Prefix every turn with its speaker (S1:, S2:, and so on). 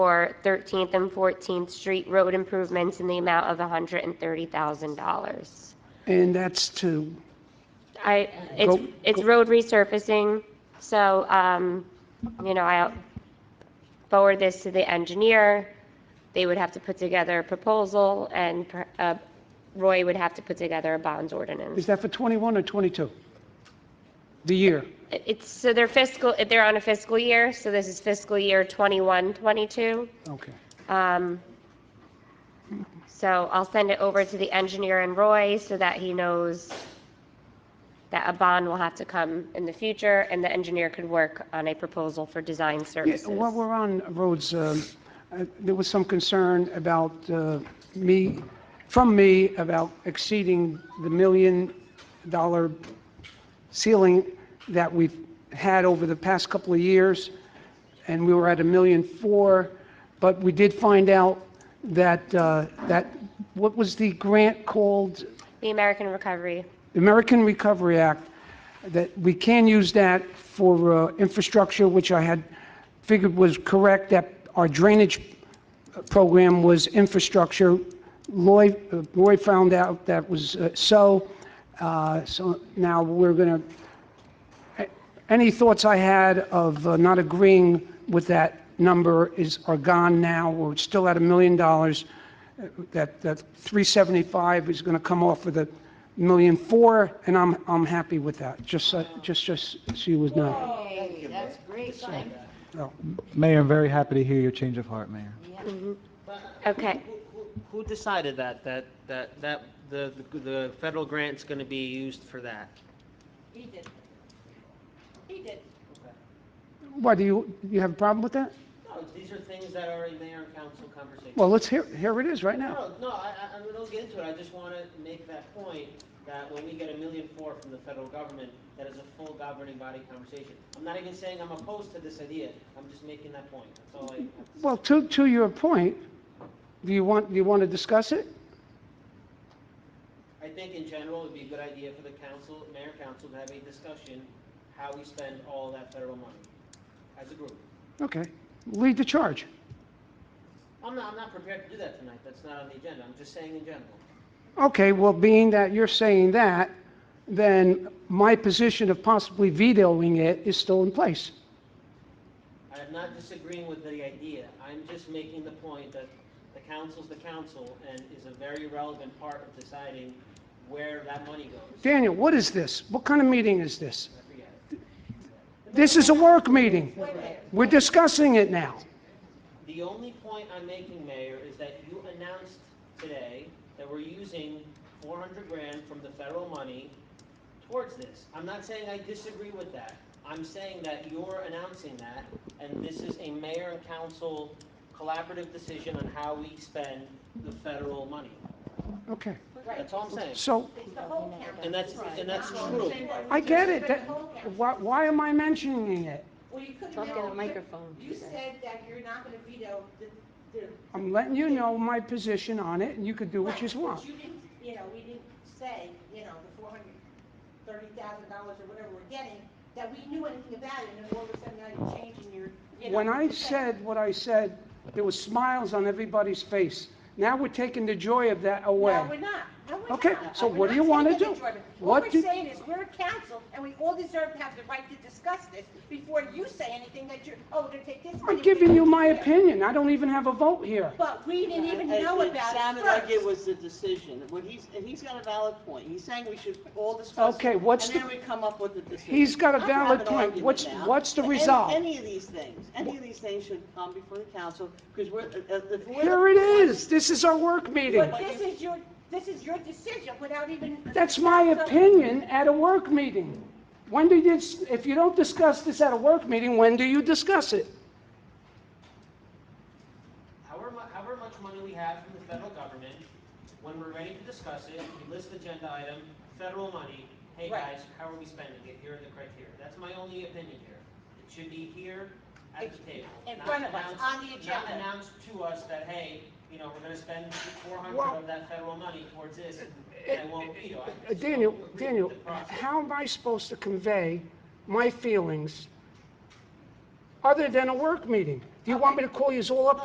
S1: for 13th and 14th Street road improvements in the amount of $130,000.
S2: And that's to,
S1: I, it's,
S2: Go-
S1: it's road resurfacing, so, um, you know, I'll forward this to the engineer. They would have to put together a proposal, and per- uh, Roy would have to put together a bonds
S2: is
S1: ordinance.
S2: that for 21 or 22? The year?
S1: It- It's, so they're fiscal, they're on a fiscal year, so this is fiscal year 21, 22.
S2: Okay.
S1: Um, So I'll send it over to the engineer and Roy so that he knows that a bond will have to come in the future and the engineer could work on a proposal for design
S2: Yeah,
S1: services.
S2: While we're on roads, um, uh, there was some concern about uh, me, from me, about exceeding the million-dollar ceiling that we've had over the past couple of years, and we were at a million four, but we did find out that, uh, that, what was the grant called?
S1: The American Recovery,
S2: The American Recovery Act, that we can use that for uh, infrastructure, which I had figured was correct, that our drainage program was infrastructure. Lloyd, uh, Roy found out that was uh, so, uh, so now we're going to, any thoughts I had of uh, not agreeing with that number is, are gone now, we're still at a million dollars Uh, that, that 375 is going to come off with a million four, and I'm, I'm happy with that, just, so- just, just she was not.
S3: Hey, that's great, thank
S4: Mayor, I'm very happy to hear your change of heart, Mayor.
S1: okay.
S5: Who- who- Who decided that, that, that, that, the, the- the federal grant's gonna be used for that?
S3: He did. He did.
S2: Why, do you, you have a problem with that?
S5: No, these are things that are in mayor and council conversation.
S2: Well, let's hear, here it is right now.
S5: No, no, I, I, I don't get into it, I just wanna make that point, that when we get a million four from the federal government, that is a full governing body conversation. I'm not even saying I'm opposed to this idea, I'm just making that point, that's all I have to say.
S2: Well, to, to your point, do you want, do you want to discuss it?
S5: I think in general, it'd be a good idea for the council, mayor and council, to have a discussion, how we spend all that federal money, as a group.
S2: Okay, lead the charge.
S5: I'm not, I'm not prepared to do that tonight, that's not on the agenda, I'm just saying in general.
S2: Okay, well, being that you're saying that, then my position of possibly vetoing it is still in place.
S5: I am not disagreeing with the idea, I'm just making the point that the council's the council and is a very relevant part of deciding where that money goes.
S2: Daniel, what is this? What kind of meeting is this?
S5: I forget it.
S2: This is a work meeting. We're discussing it now.
S5: The only point I'm making, Mayor, is that you announced today that we're using four hundred grand from the federal money towards this. I'm not saying I disagree with that, I'm saying that you're announcing that, and this is a mayor and council collaborative decision on how we spend the federal money.
S2: Okay,
S5: That's all I'm saying.
S2: so
S3: It's the whole county.
S5: And that's, and that's true.
S2: I get it. That- Why, why am I mentioning it?
S3: Well, you couldn't. Talk in the microphone. You said that you're not gonna veto the, the.
S2: I'm letting you know my position on it, and you could do what you
S3: Right, but
S2: want.
S3: You didn't, you know, we didn't say, you know, the four hundred thirty thousand dollars or whatever we're getting, that we knew anything about it, and then all of a sudden now you're changing your, you know.
S2: When I
S3: your thing.
S2: said what I said, there was smiles on everybody's face. Now we're taking the joy of that
S3: No, we're
S2: away.
S3: not. No, we're
S2: Okay,
S3: not.
S2: so
S3: We're
S2: what do
S3: not
S2: you wanna
S3: taking
S2: do?
S3: the Jordan.
S2: What
S3: What we're
S2: do-
S3: saying is, we're a council, and we all deserve to have the right to discuss this before you say anything that you're, oh, we're gonna take this money.
S2: I'm giving you my opinion. I don't even have a vote here.
S3: But we didn't even
S6: It-
S3: know
S6: it
S3: about it
S6: sounded like it
S3: first.
S6: was a decision. What he's, and he's got a valid point. He's saying we should all discuss. it,
S2: Okay, what's the-
S6: And then we come up with a decision.
S2: He's got a
S6: I don't have
S2: valid
S6: an
S2: point.
S6: argument
S2: What's-
S6: now.
S2: what's the
S6: Any-
S2: resolve?
S6: Any of these things, any of these things should come before the council, because we're, uh, uh, if we're.
S2: Here it is. This is our work meeting.
S3: But this is your, this is your decision without even.
S2: That's my
S3: So-
S2: opinion at a work meeting. When do you, if you don't discuss this at a work meeting, when do you discuss it?
S5: However, mu- however much money we have from the federal government, when we're ready to discuss it, we list agenda item, federal money, hey
S3: Right.
S5: guys, how are we spending it? Here are the criteria. That's my only opinion here. It should be here at the table.
S3: In
S5: not
S3: front of us,
S5: announced-
S3: on the agenda.
S5: Not announced to us that, hey, you know, we're gonna spend four
S2: Well-
S5: hundred of that federal money towards this, and it won't be. I
S2: Uh,
S5: just don't
S2: Daniel,
S5: agree with
S2: Daniel,
S5: the process.
S2: how am I supposed to convey my feelings other than a work meeting? Do you want me to call you all up